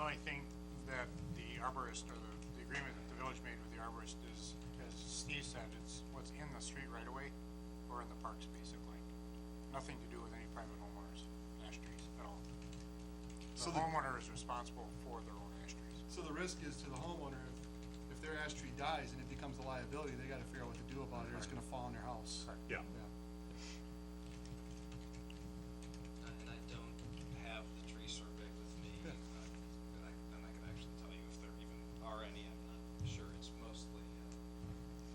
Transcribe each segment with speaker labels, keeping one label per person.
Speaker 1: I think that the arborist, or the, the agreement that the village made with the arborist is, as Steve said, it's what's in the street right away, or in the parks, basically. Nothing to do with any private homeowners, ash trees at all.
Speaker 2: So
Speaker 1: The
Speaker 2: the-
Speaker 1: homeowner is responsible for their own ash trees.
Speaker 2: So the risk is to the homeowner, if- if their ash tree dies and it becomes a liability, they gotta figure out what to do about it, or it's gonna fall on their house.
Speaker 1: Correct.
Speaker 3: Yeah.
Speaker 4: And I don't have the tree survey with me,
Speaker 2: Yeah.
Speaker 4: and I, and I, and I can actually tell you if there even are any, I'm not sure, it's mostly,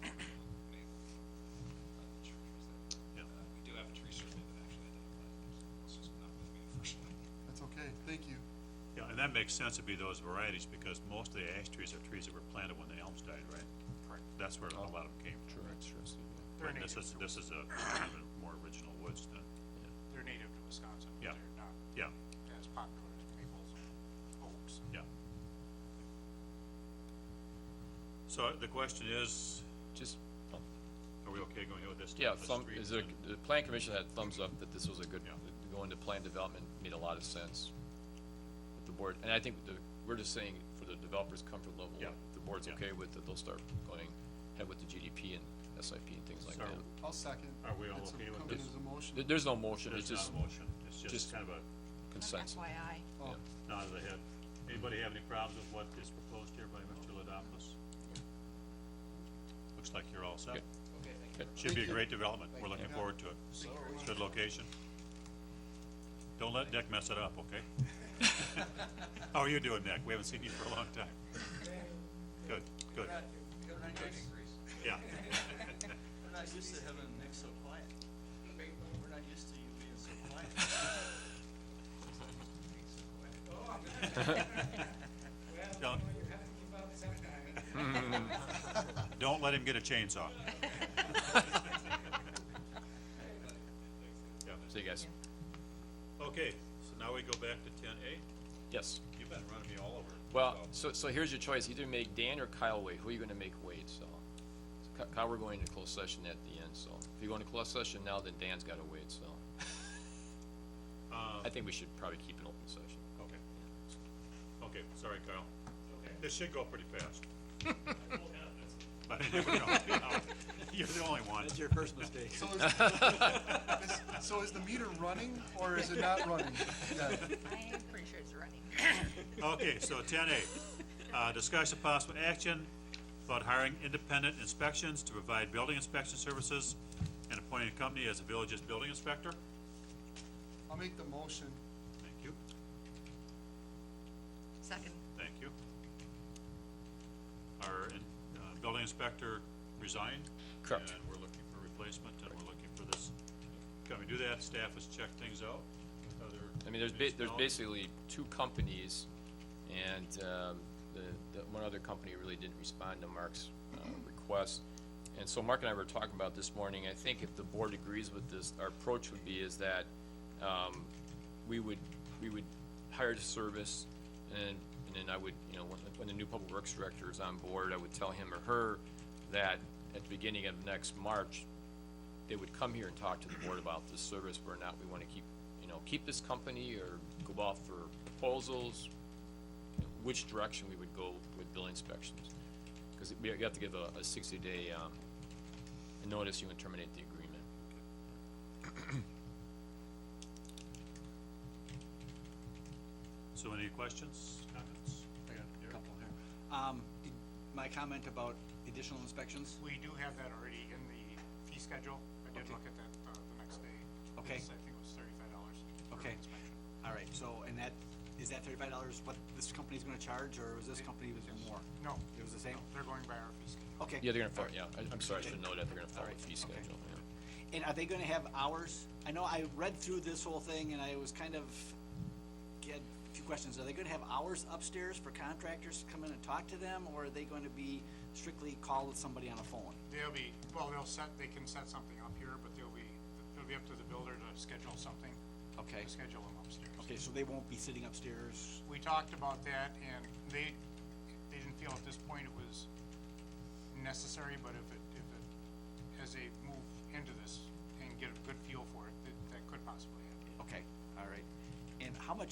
Speaker 4: uh, maple, uh, trees that,
Speaker 3: Yeah.
Speaker 4: uh, we do have a tree survey that actually identifies, them. it's just not with me unfortunately.
Speaker 2: That's okay, thank you.
Speaker 3: Yeah, and that makes sense to be those varieties, because most of the ash trees are trees that were planted when the elms died, right?
Speaker 1: Correct.
Speaker 3: That's where a lot of them came from.
Speaker 1: They're
Speaker 3: And This
Speaker 1: native
Speaker 3: is,
Speaker 1: to-
Speaker 3: this is a kind of more original woods than,
Speaker 1: They're native to Wisconsin,
Speaker 3: Yeah.
Speaker 1: but they're not
Speaker 3: yeah,
Speaker 1: as popular as maples and oaks.
Speaker 3: yeah. So the question is,
Speaker 5: Just,
Speaker 3: are we okay going with this?
Speaker 5: yeah,
Speaker 3: the
Speaker 5: thumb,
Speaker 3: streets
Speaker 5: is it,
Speaker 3: and-
Speaker 5: the plan commission had thumbs up that this was a good,
Speaker 3: Yeah.
Speaker 5: going to plan development made a lot of sense. With the board, and I think the, we're just saying for the developer's comfort level,
Speaker 3: Yeah.
Speaker 5: if the board's
Speaker 3: Yeah.
Speaker 5: okay with it, they'll start going ahead with the GDP and SIP and things like that.
Speaker 3: So-
Speaker 2: I'll second.
Speaker 3: Are we all
Speaker 2: It's a-
Speaker 3: okay with
Speaker 2: coming
Speaker 3: this?
Speaker 2: as a motion.
Speaker 5: There- there's no motion, it's
Speaker 3: There's not
Speaker 5: just
Speaker 3: a motion, it's just
Speaker 5: just-
Speaker 3: kind of a
Speaker 5: consensus.
Speaker 6: FYI.
Speaker 2: Oh,
Speaker 3: nod of the head. Anybody have any problems with what is proposed here by Mr. Ladopoulos? Looks like you're all set.
Speaker 5: Okay.
Speaker 4: Okay, thank
Speaker 5: Okay.
Speaker 3: Should be
Speaker 2: Thank
Speaker 3: a
Speaker 2: you.
Speaker 3: great development, we're looking
Speaker 2: Yeah.
Speaker 3: forward to it. It's a good location. Don't let Nick mess it up, okay? How are you doing, Nick? We haven't seen you for a long time. Good, good, yeah.
Speaker 7: We're not used to having Nick so quiet. We're not used to you being so quiet.
Speaker 3: Don't, don't let him get a chainsaw. Yeah.
Speaker 5: See you guys.
Speaker 3: Okay, so now we go back to ten A.
Speaker 5: Yes.
Speaker 3: You've been running me all over.
Speaker 5: Well,
Speaker 3: so-
Speaker 5: so, so here's your choice, either make Dan or Kyle wait, who are you gonna make wait, so. Ky- Kyle, we're going to closed session at the end, so, if you go into closed session now, then Dan's gotta wait, so. I think we should probably keep an open session.
Speaker 3: Oh, Okay. Okay, sorry, Kyle. This should go pretty fast. But you never know. You're the only one.
Speaker 8: your first mistake.
Speaker 2: so is- is, so is the meter running, or is it not running? Yeah.
Speaker 6: I am pretty sure it's running.
Speaker 3: Okay, so ten A, uh, discussion of possible action about hiring independent inspections to provide building inspection services and appointing a company as a village's building inspector.
Speaker 2: I'll make the motion.
Speaker 3: Thank you,
Speaker 6: Second,
Speaker 3: thank you. Our, in- uh, building inspector resigned.
Speaker 5: Correct.
Speaker 3: And we're looking for replacement, and we're looking for this. Can we do that? Staff has checked things out. Other
Speaker 5: I mean, there's ba- there's
Speaker 3: municipalities?
Speaker 5: basically two companies, and, um, the, the, one other company really didn't respond to Mark's, uh, request. And so Mark and I were talking about this morning, I think if the board agrees with this, our approach would be is that, um, we would, we would hire the service, and, and then I would, you know, when, when the new public works director is on board, I would tell him or her that at the beginning of next March, they would come here and talk to the board about this service, whether or not we wanna keep, you know, keep this company or go off for proposals, which direction we would go with bill inspections. Cause we have to give a, a sixty-day, um, notice you would terminate the agreement.
Speaker 3: So any questions, comments?
Speaker 7: I got
Speaker 3: Here.
Speaker 7: a couple here. Um, did- my comment about additional inspections,
Speaker 1: We do have that already in the fee schedule. I did
Speaker 7: Okay.
Speaker 1: look at that uh, the next day.
Speaker 7: Okay.
Speaker 1: It's, I think it was thirty-five dollars.
Speaker 7: Okay. all right, so, and that, is that thirty-five dollars what this company's gonna charge, or was this company was more?
Speaker 1: No.
Speaker 7: It was the same?
Speaker 1: no, They're going by our fee schedule.
Speaker 7: Okay.
Speaker 5: Yeah, they're gonna, follow- yeah, I, I'm sorry, I should know that, they're gonna follow
Speaker 7: Alright,
Speaker 5: the fee
Speaker 7: okay.
Speaker 5: schedule, yeah.
Speaker 7: And are they gonna have hours? I know I read through this whole thing and I was kind of, had a few questions. Are they gonna have hours upstairs for contractors to come in and talk to them, or are they gonna be strictly call with somebody on a phone?
Speaker 1: They'll be, well, they'll set, they can set something up here, but they'll be, it'll be up to the builder to schedule something.
Speaker 7: Okay.
Speaker 1: to Schedule them upstairs.
Speaker 7: Okay, so they won't be sitting upstairs?
Speaker 1: We talked about that and they, they didn't feel at this point it was necessary, but if it, if it, as they move into this and get a good feel for it, that, that could possibly happen.
Speaker 7: Okay, all right. And how much